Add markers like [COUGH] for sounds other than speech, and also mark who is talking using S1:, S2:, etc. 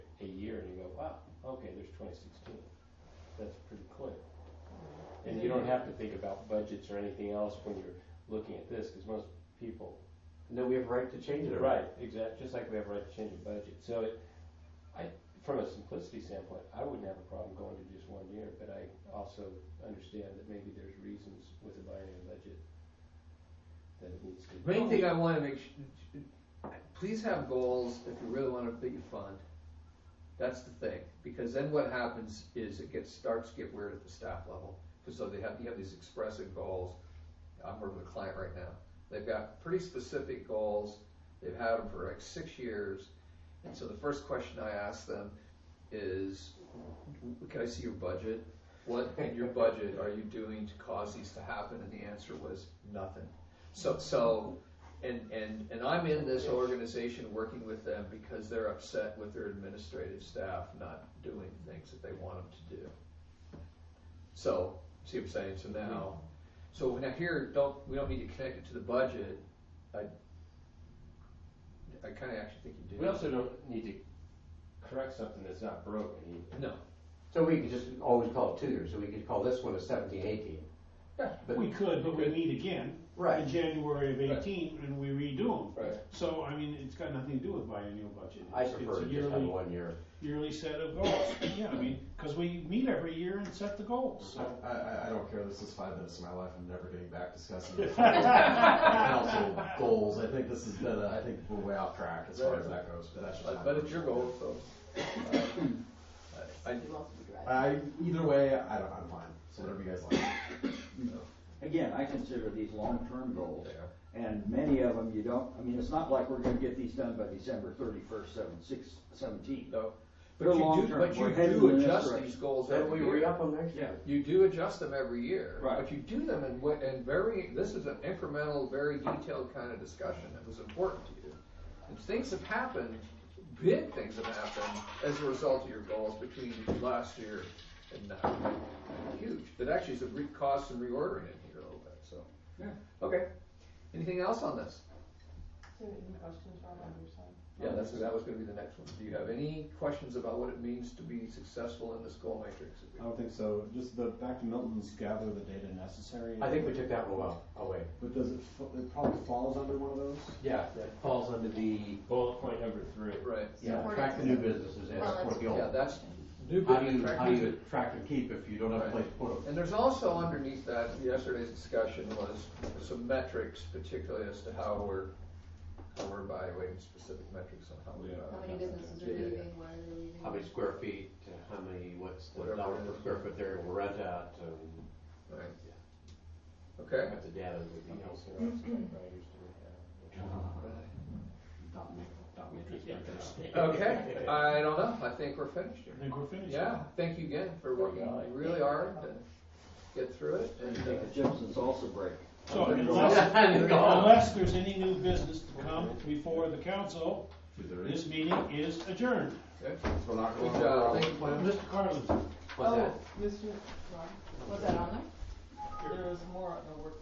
S1: wow, okay, there's twenty sixteen. That's pretty clear. And you don't have to think about budgets or anything else when you're looking at this, because most people
S2: And then we have a right to change it.
S1: Right, exactly, just like we have a right to change a budget. So it, I, from a simplicity standpoint, I wouldn't have a problem going to just one year, but I also understand that maybe there's reasons with a biennial budget that it needs to.
S3: Main thing I want to make sure, please have goals if you really want to put your fund. That's the thing, because then what happens is it gets, starts to get weird at the staff level. Because so they have, you have these expressive goals. I'm working with a client right now. They've got pretty specific goals. They've had them for like six years. And so the first question I ask them is, can I see your budget? What in your budget are you doing to cause these to happen? And the answer was nothing. So, so, and, and, and I'm in this organization working with them because they're upset with their administrative staff not doing things that they want them to do. So, see what I'm saying, so now,
S1: Mm-hmm.
S3: so now here, don't, we don't need to connect it to the budget, I, I kinda actually think you do.
S1: We also don't need to correct something that's not broken either.
S3: No,
S2: So we could just always call it two years, so we could call this one a seventeen, eighteen. But-
S4: We could, but we meet again in January of
S3: Right.
S4: eighteen, and we redo them.
S3: right,
S4: So, I mean, it's got nothing to do with biennial budget.
S2: I
S4: It's-
S2: prefer to
S4: It's a
S2: just have
S4: yearly,
S2: one year.
S4: yearly set of goals, yeah, I mean, because we meet every year and set the goals, so.
S5: I, I, I don't care. This is five minutes of my life. I'm never getting back discussing the council goals. I think this has been. A, I think we're way off track as far as that goes. But that's just
S3: but,
S5: my-
S3: but it's your goal, so. uh, [COUGHS] I, I-
S5: I either way. I don't. I'm fine. So whatever you guys like.
S6: Again, I consider these long-term goals,
S3: Yeah.
S6: and many of them you don't, I mean, it's not like we're gonna get these done by December thirty-first, seven, six, seventeen.
S3: No,
S6: They're
S3: but you do,
S6: long-term.
S3: but
S6: We're
S3: you
S6: heading
S3: do
S6: in this
S3: adjust
S6: direction.
S3: these goals
S2: Then
S3: every
S2: we
S3: year.
S2: re-up them next
S6: Yeah,
S2: year.
S3: You do adjust them every year.
S6: Right.
S3: But you do them in, wa- in very, this is an incremental, very detailed kind of discussion that was important to you. And things have happened, big things have happened as a result of your goals between last year and now. Huge, that actually is a re- cause some reordering in here a little bit, so.
S6: Yeah.
S3: Okay, anything else on this?
S7: Any questions from on your side?
S3: Yeah, that's, that was gonna be the next one. Do you have any questions about what it means to be successful in this goal matrix?
S5: I don't think so. Just the back to Milton's gather the data necessary.
S2: I think we took that one well, away.
S5: But does it? fa- It probably falls under one of those.
S2: Yeah, that falls under the,
S1: Bullet point number three.
S3: Right,
S2: yeah,
S7: Support
S2: attract the new businesses and
S7: Well,
S2: support the
S3: yeah,
S2: old.
S3: that's new
S2: How do
S3: business
S2: you, how do
S3: attracting
S2: you attract and keep if you don't have a place to put them?
S3: And there's also underneath that, yesterday's discussion was some metrics, particularly as to how we're, how we're evaluating specific metrics on how we
S7: How
S3: evaluate.
S7: many businesses are
S3: Yeah, yeah, yeah.
S7: leaving, why are they leaving?
S2: How many square feet, uh, how many, what's the
S3: Whatever
S2: dollar
S3: it
S2: per
S3: is.
S2: square foot they're gonna rent out, and
S3: Right. Okay.
S2: what the data [LAUGHS] would be
S1: Anything
S2: helpful.
S1: else that our underwriters do have?
S2: Dot ma- dot matrix.
S1: Yeah.
S2: [LAUGHS]
S3: Okay, I don't know, I think we're finished here.
S4: I think we're finished.
S3: Yeah, thank you again for working really hard to get through it and,
S6: Take
S3: uh,
S6: a chips and salsa break.
S4: So
S6: I'm gonna go
S4: unless-
S6: out.
S2: And go home.
S4: Unless there's any new business to come before the council,
S5: Two thirty.
S4: this meeting is adjourned.
S5: We're not
S3: good
S5: going.
S3: job, thank you, Glenn.
S4: Mr. Carlin.
S2: What's that?
S7: Oh, Mr. Rob, was that on there? There was more on the work